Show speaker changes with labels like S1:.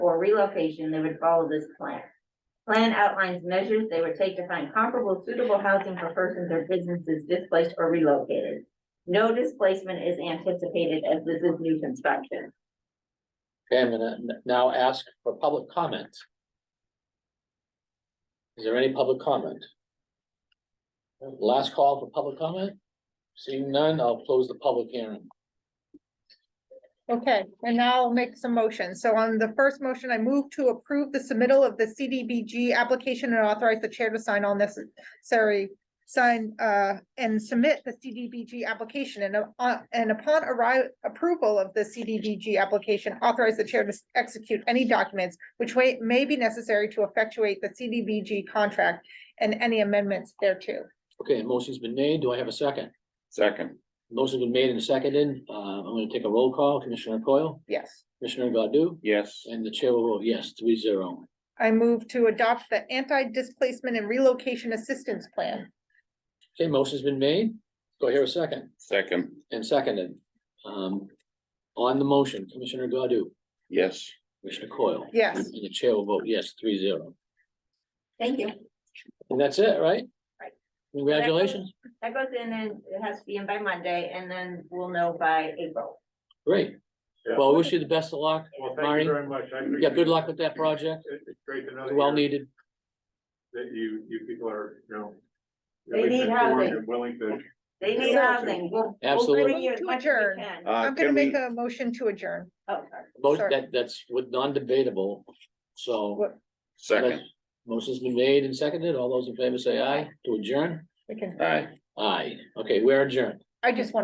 S1: relocation, they would follow this plan. Plan outlines measures they would take to find comparable suitable housing for persons or businesses displaced or relocated. No displacement is anticipated as this is new construction.
S2: Okay, I'm gonna n- now ask for public comment. Is there any public comment? Last call for public comment? Seeing none, I'll close the public hearing.
S3: Okay, and now I'll make some motions. So on the first motion, I move to approve the submittal of the CDBG application and authorize the chair to sign all necessary. Sign uh and submit the CDBG application and uh and upon arrival approval of the CDBG application, authorize the chair to execute any documents. Which way may be necessary to effectuate the CDBG contract and any amendments thereto.
S2: Okay, motion's been made. Do I have a second?
S4: Second,
S2: Motion's been made and seconded. Uh, I'm gonna take a roll call. Commissioner Coyle,
S3: Yes.
S2: Commissioner Godu,
S4: yes,
S2: and the chair will vote yes, three zero.
S3: I move to adopt the anti-displacement and relocation assistance plan.
S2: Okay, motion's been made. Go here a second
S4: second,
S2: and seconded. Um, on the motion, Commissioner Godu,
S4: yes,
S2: Commissioner Coyle.
S3: Yes.
S2: And the chair will vote yes, three zero.
S1: Thank you.
S2: And that's it, right?
S1: Right.
S2: Congratulations.
S1: That goes in and it has to be in by Monday and then we'll know by April.
S2: Great.
S5: Yeah.
S2: Well, I wish you the best of luck.
S5: Well, thank
S2: Marty.
S5: you very much.
S2: Yeah,
S5: I appreciate
S2: good luck
S5: it.
S2: with that project.
S5: It- It's great to know
S2: It's well
S5: that you're-
S2: needed.
S5: that you, you people are, you know.
S1: They need housing.
S5: And willing to.
S1: They need housing. We'll. we'll bring
S2: Absolutely.
S1: you as much as we
S3: Adjourn.
S1: can.
S4: Uh,
S3: I'm
S4: can
S3: gonna make
S4: we-
S3: a motion to adjourn.
S1: Oh, sorry.
S2: Most,
S3: Sorry.
S2: that, that's with non-debatable, so.
S3: What-
S4: second,
S2: Motion's been made and seconded. All those in favor say aye to adjourn.
S3: We can,
S4: aye.
S2: Aye. Okay, we're adjourned.
S3: I just want